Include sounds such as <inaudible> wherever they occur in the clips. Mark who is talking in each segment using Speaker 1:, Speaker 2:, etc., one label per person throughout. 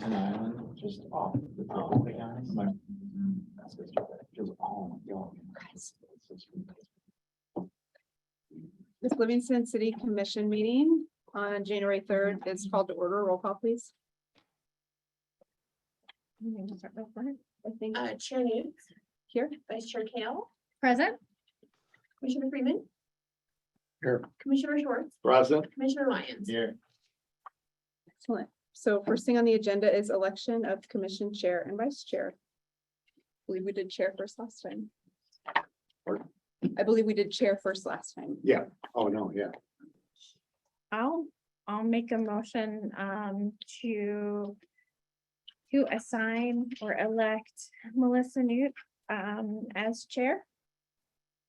Speaker 1: an island just off the top of the guys. My- that's just- Just all young. It's just-
Speaker 2: This Livingston City Commission meeting on January third is called to order. Roll call, please. You may start with Brent, I think
Speaker 3: Uh, Chair News,
Speaker 2: here.
Speaker 3: Vice Chair Kale,
Speaker 2: Present.
Speaker 3: Commissioner Freeman.
Speaker 1: Here.
Speaker 3: Commissioner Schwartz,
Speaker 1: Present
Speaker 3: Commissioner Lyons.
Speaker 1: here.
Speaker 2: Excellent. So first thing on the agenda is election of commission chair and vice chair. I Believe we did chair first last time.
Speaker 1: Pardon?
Speaker 2: I believe we did chair first last time.
Speaker 1: Oh, no, yeah.
Speaker 4: I'll, I'll make a motion um to. To assign or elect Melissa Newt um as chair.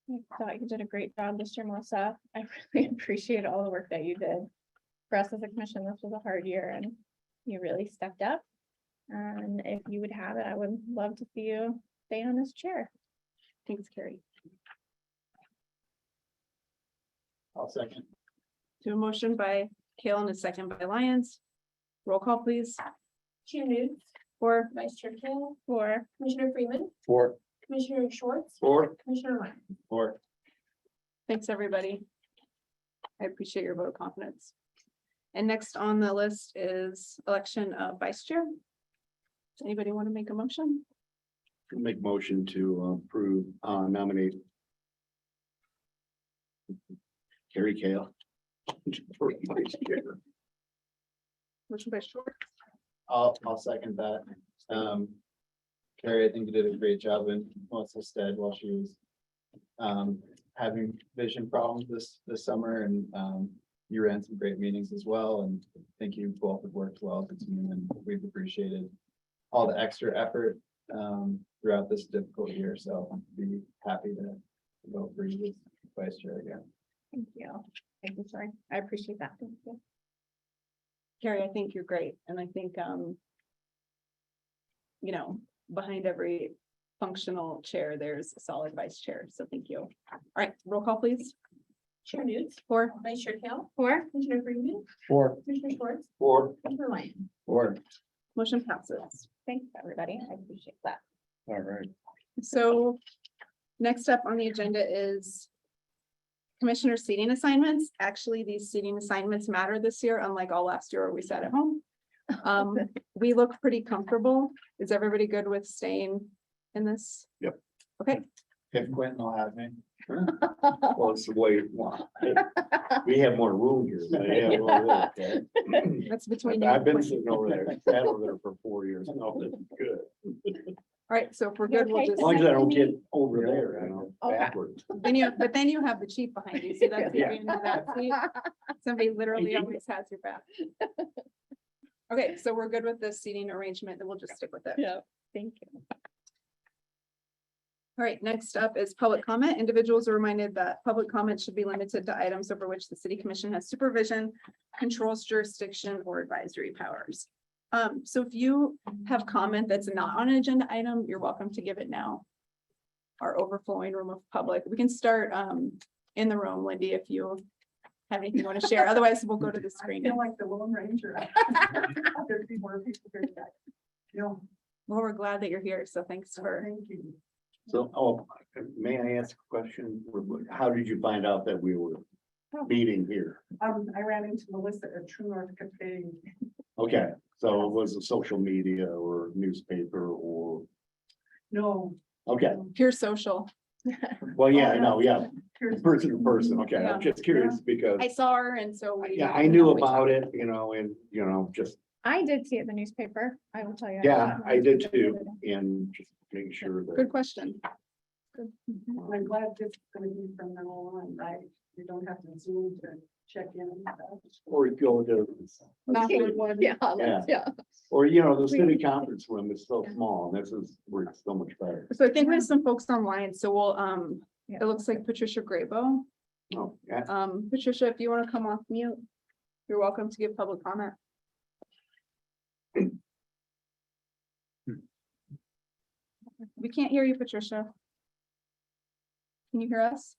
Speaker 4: I thought you did a great job this year, Melissa. I <laughs> really appreciate all the work that you did. For us as a commission, this was a hard year and you really stepped up. And if you would have it, I would love to see you stay on as chair.
Speaker 2: Thanks, Carrie.
Speaker 1: I'll second.
Speaker 2: To a motion by Kale and a second by Lyons. Roll call, please.
Speaker 3: Chair News,
Speaker 2: Or
Speaker 3: Vice Chair Kale,
Speaker 4: Or
Speaker 3: Commissioner Freeman,
Speaker 1: Four,
Speaker 3: Commissioner Schwartz,
Speaker 1: four,
Speaker 3: Commissioner Lyons.
Speaker 1: four.
Speaker 2: Thanks, everybody. I appreciate your vote of confidence. And next on the list is election of vice chair. Does anybody want to make a motion?
Speaker 1: Make motion to approve, uh, nominate. Carrie Kale. <laughs>
Speaker 2: Motion by Short,
Speaker 1: I'll, I'll second that. Um, Carrie, I think you did a great job in Melissa's stead while she was um, having vision problems this, this summer and um, you ran some great meetings as well and thank you both have worked well as a team and we've appreciated all the extra effort um, throughout this difficult year. So be happy to vote for you as vice chair again.
Speaker 4: thank you. Thank you, sorry. I appreciate that. Thank you.
Speaker 2: Carrie, I think you're great, and I think, um. You know, behind every functional chair, there's a solid vice chair, so thank you. All right, roll call, please,
Speaker 3: Chair News,
Speaker 2: Or
Speaker 3: Vice Chair Kale,
Speaker 4: Or
Speaker 3: Commissioner Freeman,
Speaker 1: Four.
Speaker 3: Commissioner Schwartz,
Speaker 1: Four.
Speaker 3: Commissioner Lyons.
Speaker 1: Four.
Speaker 2: motion passes.
Speaker 4: Thanks, everybody. I appreciate that.
Speaker 1: All right.
Speaker 2: So next up on the agenda is commissioner seating assignments. Actually, these seating assignments matter this year, unlike all last year where we sat at home. Um, we look pretty comfortable. Is everybody good with staying in this?
Speaker 1: If Quentin will have me. Well, it's the way. We have more room <laughs> here.
Speaker 5: so yeah, we'll look at it.
Speaker 2: That's between. you
Speaker 5: I've
Speaker 2: and
Speaker 5: been
Speaker 2: Quinn.
Speaker 5: sitting over there, sat over there for four years, no, that's good.
Speaker 2: All right, so if we're good, we'll
Speaker 4: Okay.
Speaker 5: As
Speaker 2: just,
Speaker 5: long as I don't get over there, you know, backwards.
Speaker 2: then you, but then you have the chief behind you, so
Speaker 5: <laughs>
Speaker 2: that's. the advantage of that seat. Somebody literally always has your back. Okay, so we're good with this seating arrangement, then we'll just stick with it.
Speaker 4: Yeah, thank you.
Speaker 2: All right, next up is public comment. Individuals are reminded that public comment should be limited to items over which the city commission has supervision, controls jurisdiction, or advisory powers. Um, so if you have comment that's not on an agenda item, you're welcome to give it now. Our overflowing room of public. We can start, um, in the room, Lindy, if you have anything you want to share. Otherwise, we'll go to the screen.
Speaker 6: like the Lone Ranger. <laughs> There'd be more people here tonight. No,
Speaker 2: Well, we're glad that you're here, so thanks for,
Speaker 6: thank you.
Speaker 5: So, oh, may I ask a question? How did you find out that we were meeting here?
Speaker 6: Um, I ran into Melissa at True North Cafe.
Speaker 5: Okay, so it was a social media or newspaper or,
Speaker 6: No,
Speaker 5: okay,
Speaker 2: pure social.
Speaker 5: well, yeah, I know, yeah,
Speaker 6: here's.
Speaker 5: person to person, okay, I'm just curious because,
Speaker 2: I saw her and so we.
Speaker 5: yeah, I knew about it, you know, and, you know, just
Speaker 4: I did see it in the newspaper. I will tell you.
Speaker 5: Yeah,
Speaker 4: saw it in
Speaker 5: I
Speaker 4: the
Speaker 5: did
Speaker 4: newspaper the
Speaker 5: too,
Speaker 4: other day.
Speaker 5: and just making sure
Speaker 2: Good
Speaker 5: that,
Speaker 2: question.
Speaker 6: And I'm glad this is gonna be from now on, right? You don't have to zoom to check in. and stuff.
Speaker 5: or go to,
Speaker 2: Bathroom.
Speaker 4: Yeah,
Speaker 5: Yeah.
Speaker 4: yeah.
Speaker 5: or, you know, the city conference room is so small, and this is, where it's so much better.
Speaker 2: So I think we have some folks online, so we'll, um, it looks like Patricia Graybo.
Speaker 5: Oh, yeah,
Speaker 2: Um, Patricia, if you want to come off mute, you're welcome to give public comment. We can't hear you, Patricia. Can you hear us?